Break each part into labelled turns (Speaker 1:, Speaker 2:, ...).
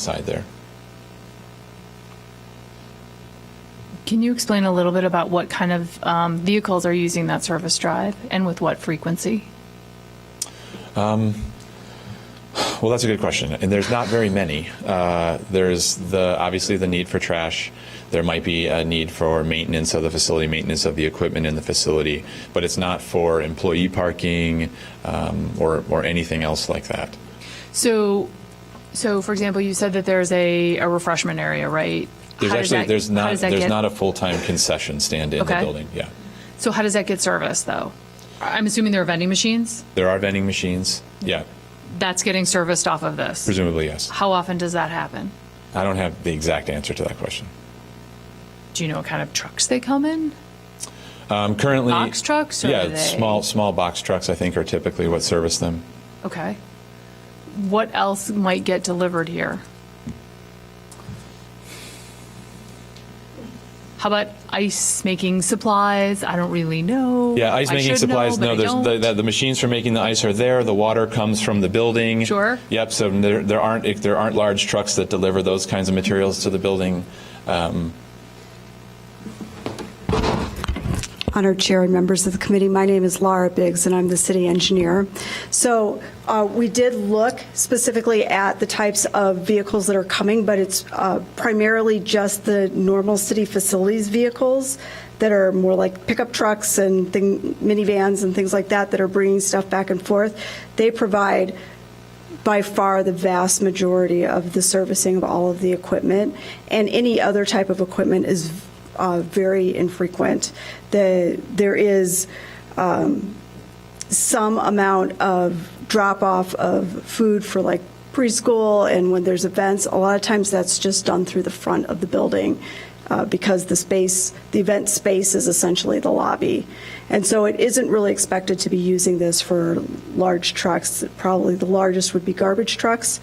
Speaker 1: side there.
Speaker 2: Can you explain a little bit about what kind of um, vehicles are using that service drive and with what frequency?
Speaker 1: Well, that's a good question, and there's not very many. Uh, there's the obviously the need for trash. There might be a need for maintenance of the facility, maintenance of the equipment in the facility, but it's not for employee parking um, or or anything else like that.
Speaker 2: So, so for example, you said that there's a, a refreshment area, right?
Speaker 1: There's
Speaker 2: How does
Speaker 1: actually
Speaker 2: that-
Speaker 1: there's
Speaker 2: how
Speaker 1: not
Speaker 2: does that
Speaker 1: there's
Speaker 2: get-
Speaker 1: not a full time concession stand in
Speaker 2: Okay.
Speaker 1: the building. Yeah,
Speaker 2: So how does that get serviced though? I'm assuming there are vending machines.
Speaker 1: there are vending machines. Yeah,
Speaker 2: That's getting serviced off of this.
Speaker 1: presumably yes.
Speaker 2: How often does that happen?
Speaker 1: I don't have the exact answer to that question.
Speaker 2: Do you know what kind of trucks they come in?
Speaker 1: Um, currently,
Speaker 2: Box trucks, or
Speaker 1: yeah,
Speaker 2: are they-
Speaker 1: small small box trucks. I think are typically what service them.
Speaker 2: Okay. What else might get delivered here? How about ice making supplies? I don't really know.
Speaker 1: Yeah, ice
Speaker 2: I
Speaker 1: making
Speaker 2: should know,
Speaker 1: supplies.
Speaker 2: but I
Speaker 1: no, there's the,
Speaker 2: don't.
Speaker 1: the, the machines for making the ice are there. The water comes from the building.
Speaker 2: Sure.
Speaker 1: Yep. So there, there aren't if there aren't large trucks that deliver those kinds of materials to the building.
Speaker 3: Honored Chair and members of the committee, my name is Laura Biggs, and I'm the city engineer. So uh, we did look specifically at the types of vehicles that are coming, but it's uh, primarily just the normal city facilities vehicles that are more like pickup trucks and thing- minivans and things like that that are bringing stuff back and forth. They provide by far the vast majority of the servicing of all of the equipment, and any other type of equipment is uh, very infrequent. The, there is um, some amount of drop off of food for like preschool and when there's events. A lot of times that's just done through the front of the building uh, because the space, the event space is essentially the lobby. And so it isn't really expected to be using this for large trucks. Probably the largest would be garbage trucks,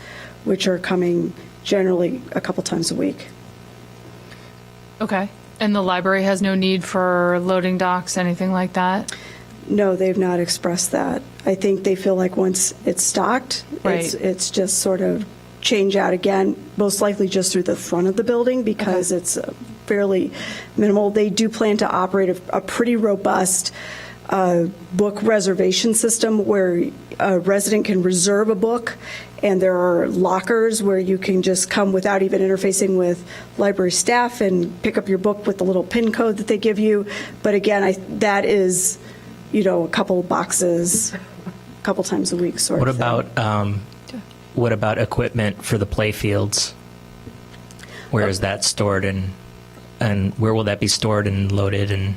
Speaker 3: which are coming generally a couple times a week.
Speaker 2: Okay. And the library has no need for loading docks, anything like that?
Speaker 3: No, they've not expressed that. I think they feel like once it's stocked, it's,
Speaker 2: Right.
Speaker 3: it's just sort of change out again, most likely just through the front of the building because it's uh, fairly minimal. They do plan to operate a, a pretty robust uh, book reservation system where a resident can reserve a book and there are lockers where you can just come without even interfacing with library staff and pick up your book with the little pin code that they give you. But again, I, that is you know, a couple boxes, a couple times a week, sort
Speaker 4: What
Speaker 3: of. thing.
Speaker 4: about um, what about equipment for the play fields? Where is that stored and and where will that be stored and loaded and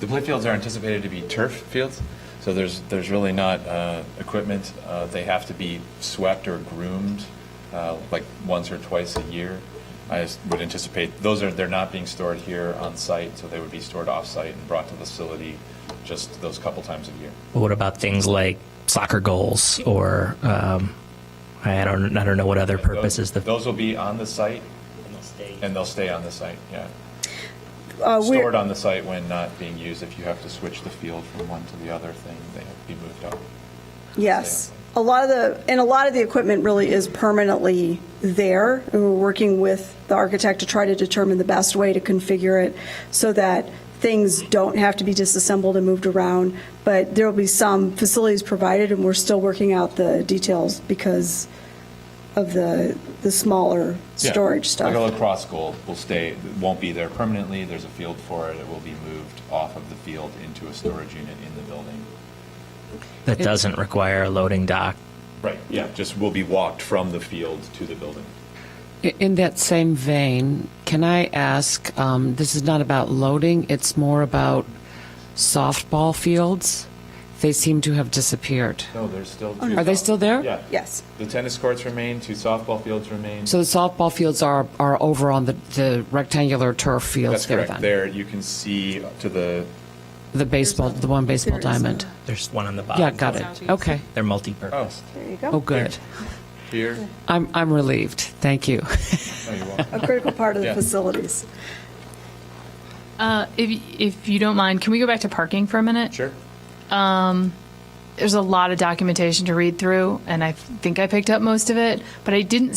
Speaker 1: The play fields are anticipated to be turf fields, so there's there's really not uh, equipment. Uh, they have to be swept or groomed uh, like once or twice a year. I s- would anticipate those are they're not being stored here on site, so they would be stored off site and brought to the facility just those couple times a year.
Speaker 4: what about things like soccer goals or um, I don't I don't know what other
Speaker 1: Those,
Speaker 4: purposes the
Speaker 1: those will be on the site, and they'll stay on the site. Yeah,
Speaker 3: Uh, we're-
Speaker 1: stored on the site when not being used. If you have to switch the field from one to the other thing, they have to be moved up.
Speaker 3: Yes. A lot of the, and a lot of the equipment really is permanently there. And we're working with the architect to try to determine the best way to configure it so that things don't have to be disassembled and moved around. But there will be some facilities provided, and we're still working out the details because of the, the smaller
Speaker 1: Yeah.
Speaker 3: storage stuff.
Speaker 1: Like a lacrosse goal will stay, won't be there permanently. There's a field for it. It will be moved off of the field into a storage unit in the building.
Speaker 4: that doesn't require a loading dock.
Speaker 1: Right, yeah, just will be walked from the field to the building.
Speaker 5: In that same vein, can I ask, um, this is not about loading, it's more about softball fields. They seem to have disappeared.
Speaker 1: No, there's still two.
Speaker 5: Oh, Are they
Speaker 1: soft-
Speaker 5: still there?
Speaker 1: Yeah.
Speaker 3: Yes.
Speaker 1: The tennis courts remain, two softball fields remain.
Speaker 5: So the softball fields are, are over on the, the rectangular turf
Speaker 1: That's
Speaker 5: fields there
Speaker 1: correct.
Speaker 5: then?
Speaker 1: There, you can see to the,
Speaker 5: The baseball, the one baseball
Speaker 3: There is a-
Speaker 5: diamond?
Speaker 4: There's one on the bottom.
Speaker 5: Yeah, got it. Okay.
Speaker 4: They're multi-purpose.
Speaker 3: There you go.
Speaker 5: Oh, good.
Speaker 1: here. Oh,
Speaker 5: I'm, I'm relieved. Thank you.
Speaker 1: No, you're welcome.
Speaker 3: A critical part of the
Speaker 1: Yeah.
Speaker 3: facilities.
Speaker 2: Uh, if, if you don't mind, can we go back to parking for a minute?
Speaker 1: Sure.
Speaker 2: There's a lot of documentation to read through, and I think I picked up most of it, but I didn't